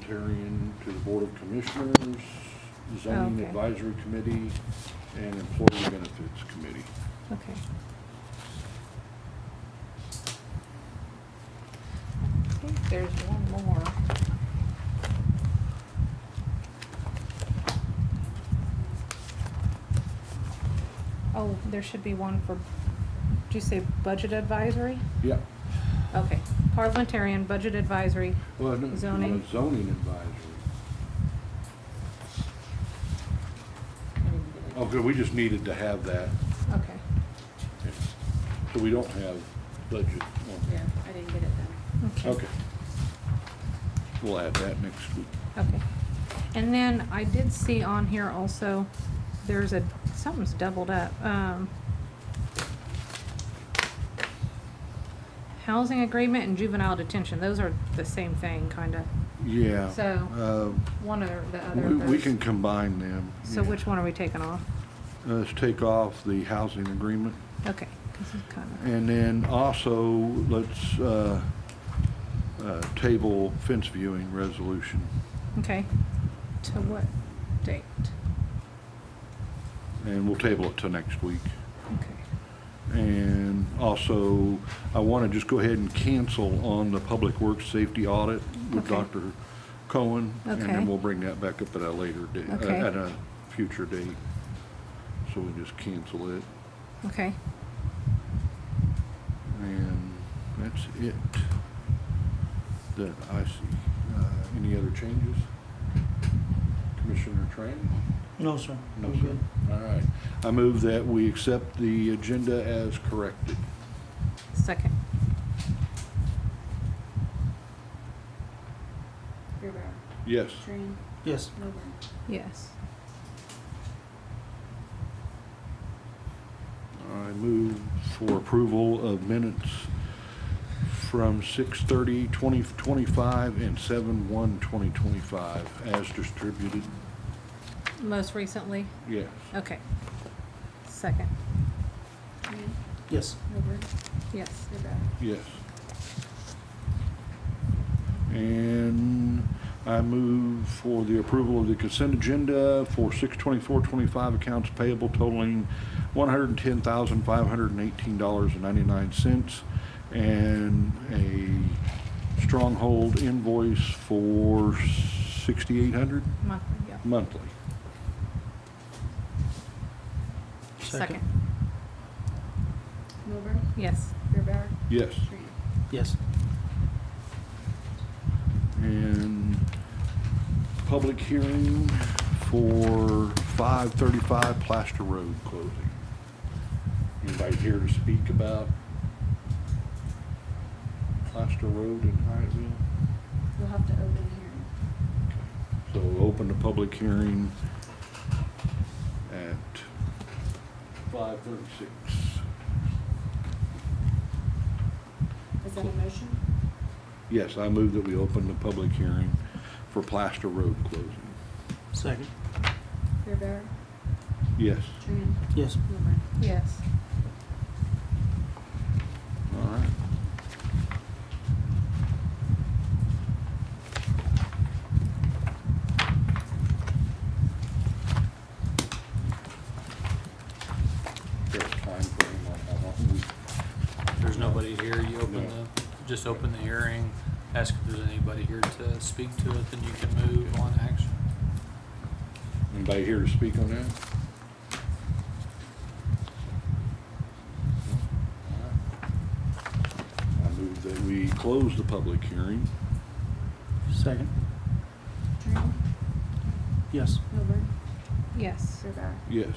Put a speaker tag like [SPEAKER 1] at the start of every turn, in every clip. [SPEAKER 1] parliamentarian to the Board of Commissioners, Zoning
[SPEAKER 2] Oh, Okay.
[SPEAKER 1] Advisory Committee, and Employee Benefits Committee.
[SPEAKER 2] Okay. I think there's one more. Oh, there should be one for, did you say budget advisory?
[SPEAKER 1] Yeah.
[SPEAKER 2] Okay, parliamentarian, budget advisory.
[SPEAKER 1] Well, no,
[SPEAKER 2] Zoning.
[SPEAKER 1] no, Zoning Advisory. Okay, Oh, we just needed to have that,
[SPEAKER 2] Okay,
[SPEAKER 1] so we don't have budget. on
[SPEAKER 3] Yeah, I didn't get it then.
[SPEAKER 2] okay.
[SPEAKER 1] Okay. We'll add that next week.
[SPEAKER 2] Okay. And then I did see on here also, there's a, something's doubled up. Um, housing agreement and juvenile detention, those are the same thing, kinda.
[SPEAKER 1] Yeah.
[SPEAKER 2] So, One or the
[SPEAKER 1] uh,
[SPEAKER 2] other.
[SPEAKER 1] We
[SPEAKER 2] of
[SPEAKER 1] we
[SPEAKER 2] those.
[SPEAKER 1] can combine them.
[SPEAKER 2] So
[SPEAKER 1] yeah.
[SPEAKER 2] which one are we taking off?
[SPEAKER 1] Let's take off the housing agreement.
[SPEAKER 2] Okay, 'cause it's kinda,
[SPEAKER 1] And then also, let's uh, uh, table fence viewing resolution.
[SPEAKER 2] okay. To what date?
[SPEAKER 1] And we'll table it till next week.
[SPEAKER 2] Okay.
[SPEAKER 1] And also, I want to just go ahead and cancel on the public works safety audit with
[SPEAKER 2] Okay.
[SPEAKER 1] Dr. Cohen. And
[SPEAKER 2] Okay.
[SPEAKER 1] then we'll bring that back up at a later date, uh,
[SPEAKER 2] Okay.
[SPEAKER 1] at a future date. So we just cancel it.
[SPEAKER 2] Okay,
[SPEAKER 1] And that's it that I see. Uh, Any other changes? Commissioner Tran?
[SPEAKER 4] No, sir.
[SPEAKER 1] No,
[SPEAKER 4] I'm
[SPEAKER 1] sir.
[SPEAKER 4] good.
[SPEAKER 1] All right. I move that we accept the agenda as corrected.
[SPEAKER 2] second.
[SPEAKER 3] Beerbauer,
[SPEAKER 1] Yes.
[SPEAKER 3] Train,
[SPEAKER 4] Yes,
[SPEAKER 3] Milburn.
[SPEAKER 2] Yes,
[SPEAKER 1] I move for approval of minutes from 6:30, 2025 and 7:1, 2025 as distributed.
[SPEAKER 2] most recently,
[SPEAKER 1] Yes.
[SPEAKER 2] okay. Second,
[SPEAKER 3] Train,
[SPEAKER 4] yes.
[SPEAKER 3] Milburn,
[SPEAKER 2] yes.
[SPEAKER 3] Beerbauer.
[SPEAKER 1] Yes. And I move for the approval of the consent agenda for six twenty-four twenty-five accounts payable totaling one hundred and ten thousand, five hundred and eighteen dollars and ninety-nine cents. And a stronghold invoice for sixty-eight hundred
[SPEAKER 2] Monthly, yeah.
[SPEAKER 1] monthly.
[SPEAKER 2] Second,
[SPEAKER 3] Milburn,
[SPEAKER 2] yes.
[SPEAKER 3] Beerbauer,
[SPEAKER 1] Yes.
[SPEAKER 3] Train.
[SPEAKER 4] Yes,
[SPEAKER 1] And public hearing for five thirty-five Plaster Road closing. Anybody here to speak about Plaster Road in Hyattville?
[SPEAKER 3] We'll have to open hearing.
[SPEAKER 1] So open the public hearing at five thirty-six.
[SPEAKER 3] Is that a motion?
[SPEAKER 1] Yes, I move that we open the public hearing for Plaster Road closing.
[SPEAKER 4] second.
[SPEAKER 3] Beerbauer,
[SPEAKER 1] Yes.
[SPEAKER 3] Train,
[SPEAKER 4] Yes,
[SPEAKER 3] Milburn.
[SPEAKER 2] Yes.
[SPEAKER 1] All right. There's a time frame on how long we-
[SPEAKER 5] There's nobody here, you open
[SPEAKER 1] No.
[SPEAKER 5] the, just open the hearing, ask if there's anybody here to speak to it, then you can move on to action.
[SPEAKER 1] Anybody here to speak on that? I move that we close the public hearing.
[SPEAKER 4] second.
[SPEAKER 3] Train,
[SPEAKER 4] Yes,
[SPEAKER 3] Milburn,
[SPEAKER 2] Yes.
[SPEAKER 3] Beerbauer.
[SPEAKER 1] Yes.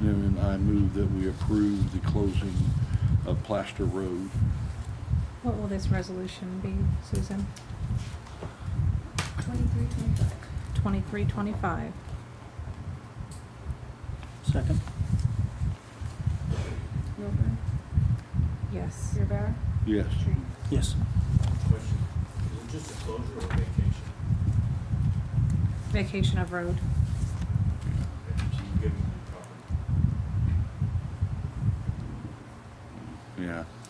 [SPEAKER 1] And I move that we approve the closing of Plaster Road.
[SPEAKER 2] What will this resolution be, Susan?
[SPEAKER 3] Twenty-three, twenty-five.
[SPEAKER 2] Twenty-three, twenty-five.
[SPEAKER 4] second.
[SPEAKER 3] Milburn,
[SPEAKER 2] Yes.
[SPEAKER 3] Beerbauer,
[SPEAKER 1] Yes.
[SPEAKER 3] Train.
[SPEAKER 4] Yes,
[SPEAKER 6] Question, is it just a closure or a vacation?
[SPEAKER 2] Vacation of road.
[SPEAKER 6] If you give them the property.
[SPEAKER 1] Yeah.